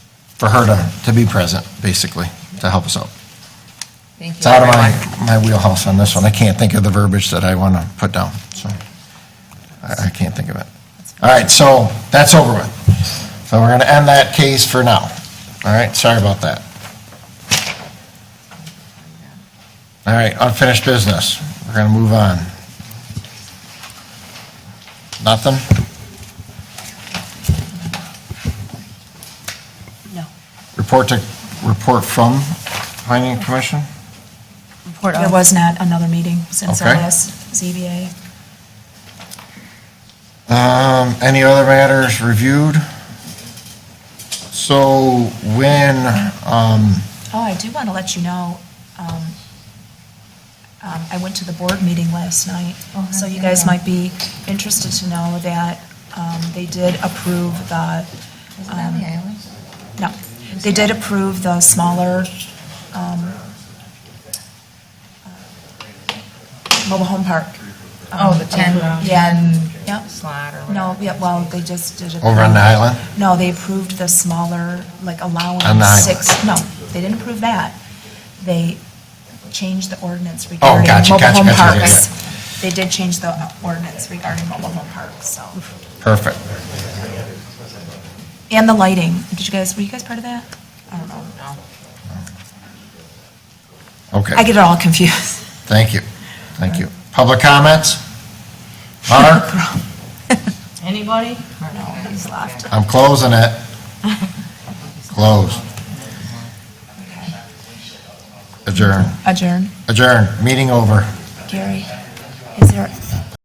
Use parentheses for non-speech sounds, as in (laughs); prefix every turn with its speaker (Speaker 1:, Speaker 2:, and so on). Speaker 1: for her to, to be present, basically, to help us out.
Speaker 2: Thank
Speaker 1: It's
Speaker 2: you,
Speaker 1: out of
Speaker 2: everyone.
Speaker 1: my, my wheelhouse on this one. I can't think of the verbiage that I want to put down, so I, I can't think of it. All right, so that's over with. So we're going to end that case for now. All right, sorry about that. All right, unfinished business. We're going to move on. Nothing?
Speaker 2: No.
Speaker 1: Report to, report from planning commission?
Speaker 2: Report
Speaker 3: There
Speaker 2: of.
Speaker 3: was not another meeting since our
Speaker 1: Oh. Okay.
Speaker 3: last ZBA.
Speaker 1: Um, any other matters reviewed? So when, um,
Speaker 3: Oh, I do want to let you know, um, um, I went to the board meeting last night, so you guys might be interested to know that um, they did approve the,
Speaker 2: Was it on the island?
Speaker 3: no, they did approve the smaller um, uh, mobile home park. Um,
Speaker 2: Oh, the 10,
Speaker 3: Yeah,
Speaker 2: 10
Speaker 3: Yep.
Speaker 2: slot or whatever.
Speaker 3: no, yeah, well, they just did.
Speaker 1: over on the
Speaker 3: approve-
Speaker 1: island?
Speaker 3: No, they approved the smaller, like
Speaker 1: On the
Speaker 3: allowing
Speaker 1: island.
Speaker 3: six, no, they didn't approve that. They changed the ordinance
Speaker 1: Oh,
Speaker 3: regarding
Speaker 1: gotcha,
Speaker 3: mobile
Speaker 1: gotcha,
Speaker 3: home
Speaker 1: gotcha, yeah,
Speaker 3: parks. They did change the ordinance regarding mobile home parks, so.
Speaker 1: Perfect.
Speaker 3: And the lighting, did you guys, were you guys part of that? I don't know.
Speaker 2: No.
Speaker 3: I
Speaker 1: Okay,
Speaker 3: get it all confused. (laughs)
Speaker 1: thank you, thank you. Public comments? Mark, (laughs)
Speaker 2: Anybody?
Speaker 3: No, he's left.
Speaker 1: I'm closing it. Close. Adjourn,
Speaker 3: Adjourn.
Speaker 1: adjourn, meeting over.
Speaker 3: Gary, is there